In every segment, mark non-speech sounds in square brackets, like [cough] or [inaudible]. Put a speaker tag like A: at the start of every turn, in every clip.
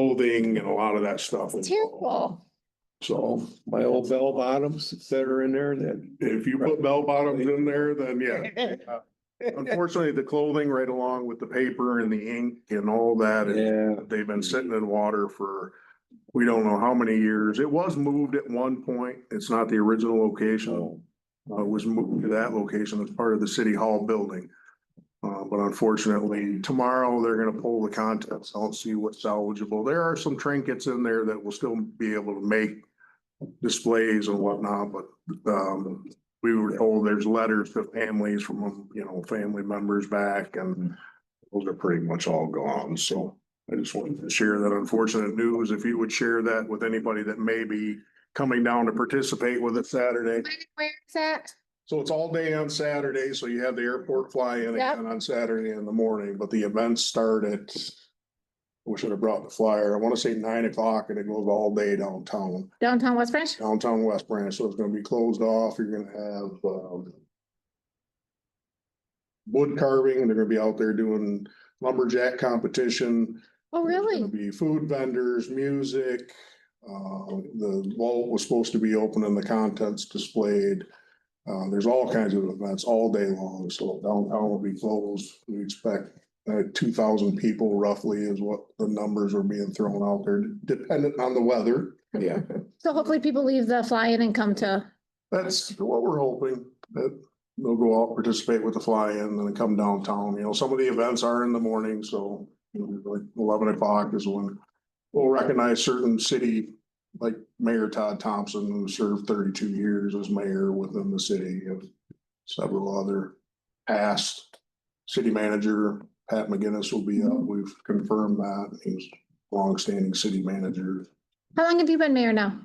A: clothing and a lot of that stuff.
B: Terrible.
A: So
C: My old bell bottoms that are in there that,
A: if you put bell bottoms in there, then
B: [laughs]
A: yeah. Unfortunately, the clothing right along with the paper and the ink and all that, and
C: yeah,
A: they've been sitting in water for we don't know how many years. It was moved at one point. It's not the original location.
C: so,
A: Uh, was moved to that location as part of the city hall building. Uh, but unfortunately, tomorrow they're gonna pull the contents. I'll see what's salvageable. There are some trinkets in there that will still be able to make displays and whatnot, but, um, we were told there's letters to families from, you know, family members back and those are pretty much all gone. So I just wanted to share that unfortunate news. If you would share that with anybody that may be coming down to participate with us Saturday.
B: Where is that?
A: So it's all day on Saturday, so you have the airport fly in
B: Yep.
A: again on Saturday in the morning, but the events start at. We should have brought the flyer. I want to say nine o'clock and it goes all day downtown,
B: Downtown West Branch?
A: downtown West Branch, so it's gonna be closed off. You're gonna have, um. Wood carving, they're gonna be out there doing lumberjack competition.
B: Oh,
A: There's gonna
B: really?
A: Be food vendors, music, uh, the vault was supposed to be open and the contents displayed. Uh, there's all kinds of events all day long, so downtown will be closed. We expect uh, two thousand people roughly is what the numbers are being thrown out there, dependent on the weather.
C: yeah.
B: So hopefully people leave the fly-in and come to,
A: That's what we're hoping, that they'll go out, participate with the fly-in, and then come downtown, you know, some of the events are in the morning, so. you know, Like eleven o'clock is when we'll recognize certain city, like Mayor Todd Thompson, who served thirty-two years as mayor within the city of. Several other past city manager, Pat McGinnis will be up, we've confirmed that, he's longstanding city manager.
B: how long have you been mayor now?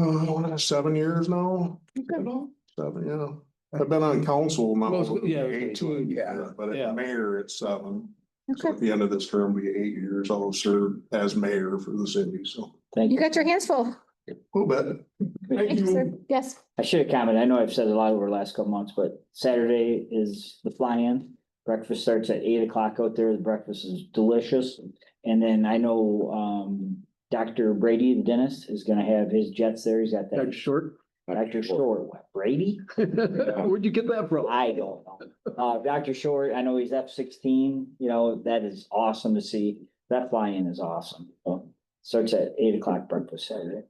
A: Uh, I want to seven years now. Seven, yeah. I've been on council now.
D: Well, yeah, okay,
A: Eight,
D: two,
A: yeah, But
D: yeah.
A: as mayor, it's seven. So
B: Okay,
A: at the end of this term, we eight years. I'll serve as mayor for the city, so
B: you got your hands full.
A: a little bit.
B: Thank you, sir. Yes,
D: I should have commented. I know I've said a lot over the last couple months, but Saturday is the fly-in. Breakfast starts at eight o'clock out there. The breakfast is delicious. And then I know um Dr. Brady, the dentist, is gonna have his jets there. He's got
E: That's
D: that
E: short.
D: Dr. [laughs] Short, What, Brady?
E: Where'd you get that from?
D: I don't know. Uh, Dr. Short, I know he's F sixteen, you know, that is awesome to see. That fly-in is awesome. So, Starts at eight o'clock breakfast Saturday.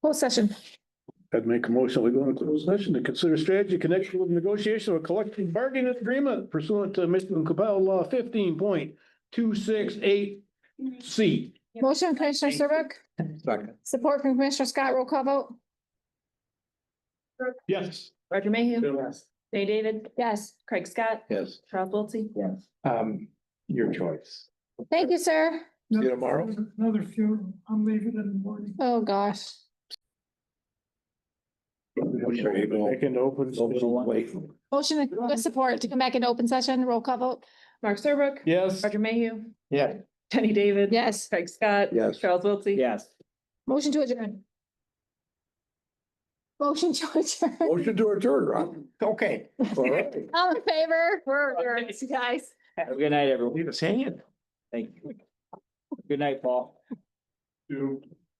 B: closed session.
E: I'd make a motion, we go into closed session to consider strategy connection with negotiation of a collective bargaining agreement pursuant to Michigan Capella Law fifteen point two six eight C.
B: Motion, Commissioner Serbuk,
C: Second.
B: support from Commissioner Scott, roll call vote.
E: Yes.
F: Roger Mayhew. Jay David.
B: Yes,
F: Craig Scott.
C: Yes.
F: Charles Wiltie.
D: Yes.
C: Um, your choice.
B: thank you, sir.
C: See you tomorrow.
G: Another funeral. I'm leaving in the morning.
B: Oh, gosh.
C: Sure you go.
E: Back into open.
D: Open one.
E: session.
B: Motion to support to come back into open session, roll call vote.
F: Mark Serbrook.
E: Yes.
F: Roger Mayhew.
C: Yeah.
F: Jenny David.
B: Yes,
F: Craig Scott.
C: Yes.
F: Charles Wiltie.
D: Yes.
B: motion to adjourn. Motion to [laughs] adjourn.
C: Motion to adjourn, Ron. Okay. All right.
B: All in favor? We're adjourned, guys.
D: Have a good night, everyone.
E: Leave us hanging.
D: Thank you. Good night, Paul.
A: Two.